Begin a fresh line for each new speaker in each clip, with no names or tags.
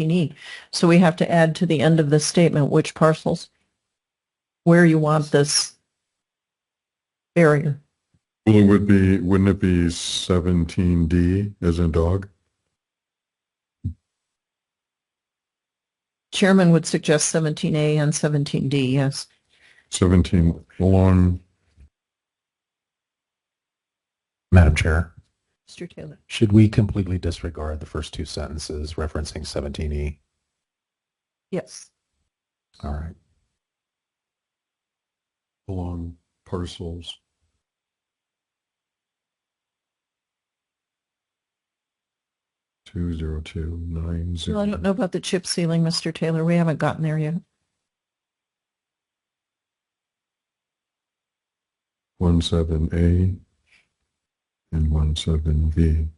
E. So we have to add to the end of this statement which parcels, where you want this barrier.
Well, it would be, wouldn't it be seventeen D as in dog?
Chairman would suggest 17A and 17D, yes.
Seventeen along,
Madam Chair,
Mr. Taylor.
should we completely disregard the first two sentences referencing 17E?
Yes.
All right.
along parcels. Two zero two
Well, I
nine zero.
don't know about the chip sealing, Mr. Taylor. We haven't gotten there yet.
One seven A and one seven B.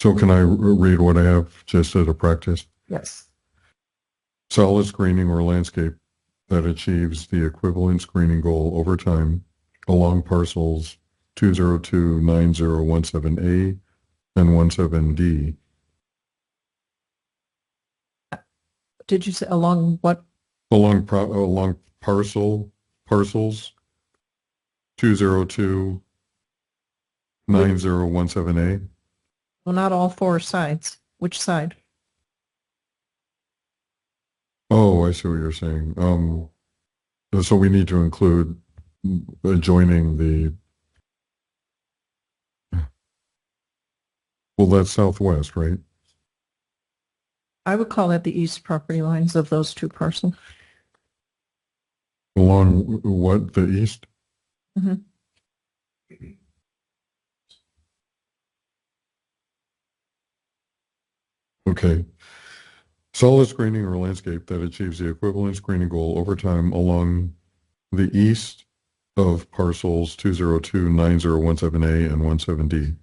So can I r- read what I have just as a practice?
Yes.
solid screening or landscape that achieves the equivalent screening goal over time along parcels 2029017A and 17D
Did you say along what?
along pro, along parcel parcels 2029017A
Well, not all four sides. Which side?
Oh, I see what you're saying. Um, so we need to include adjoining the. Well, that's southwest, right?
I would call that the east property lines of those two parcels.
Along w- what, the east?
Mhm.
Okay. Solid screening or landscape that achieves the equivalent screening goal over time along the east of parcels 2029017A and 17D.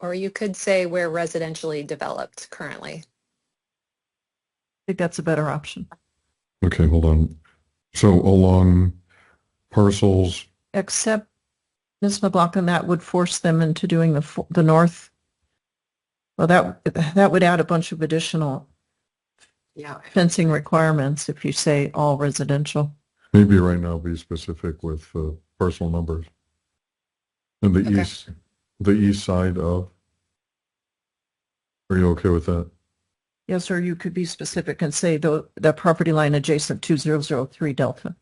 Or you could say where residentially developed currently.
I think that's a better option.
Okay, hold on. So along parcels,
Except, Ms. McLaughlin, that would force them into doing the, fo- the north. Well, that, that would add a bunch of additional
Yeah.
fencing requirements if you say all residential.
maybe right now be specific with uh, parcel numbers. And the
Okay.
east, the east side of. Are you okay with that?
Yes, or you could be specific and say the, the property line adjacent two zero zero three Delta.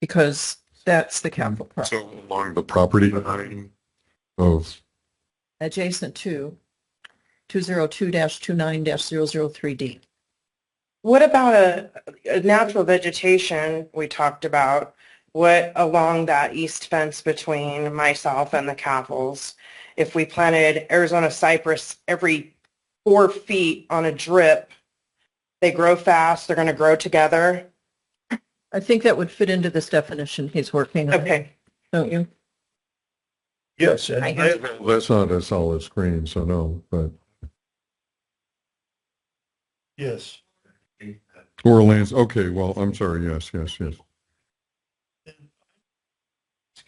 Because that's the capital property,
So along the property line of,
adjacent to two zero two dash two nine dash zero zero three D.
What about a, a natural vegetation we talked about? What along that east fence between myself and the Cavills? If we planted Arizona cypress every four feet on a drip, they grow fast. They're going to grow together.
I think that would fit into this definition he's working on,
Okay.
don't you?
yes.
I
and
hear
That's not a solid screen, so no, but. Yes. Or lands, okay, well, I'm sorry, yes, yes, yes.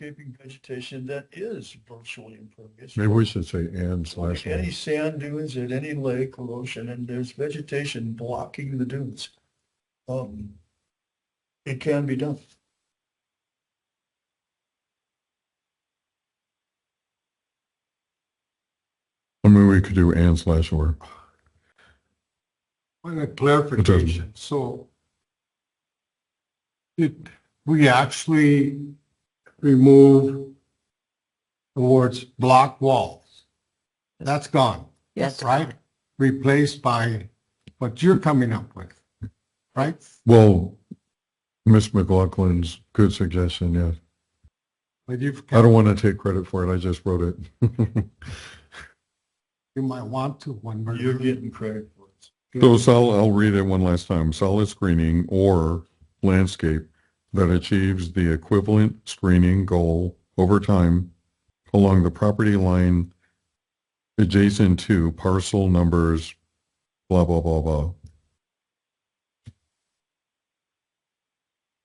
landscaping vegetation that is virtually impervious.
Maybe we should say and slash.
Like Any
land.
sand dunes at any lake or ocean, and there's vegetation blocking the dunes. Um, it can be done.
I mean, we could do and slash or.
Well, a clarification, so did we actually remove the words block walls? That's gone,
Yes.
right? Replaced by what you're coming up with, right?
Well, Miss McLaughlin's good suggestion, yes.
But you've,
I don't want to take credit for it, I just wrote it.
you might want to when we're.
You're getting credit for it.
So sol, I'll read it one last time. Solid screening or landscape that achieves the equivalent screening goal over time along the property line adjacent to parcel numbers, blah, blah, blah, blah.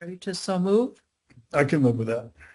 Ready to so move?
I can live with that.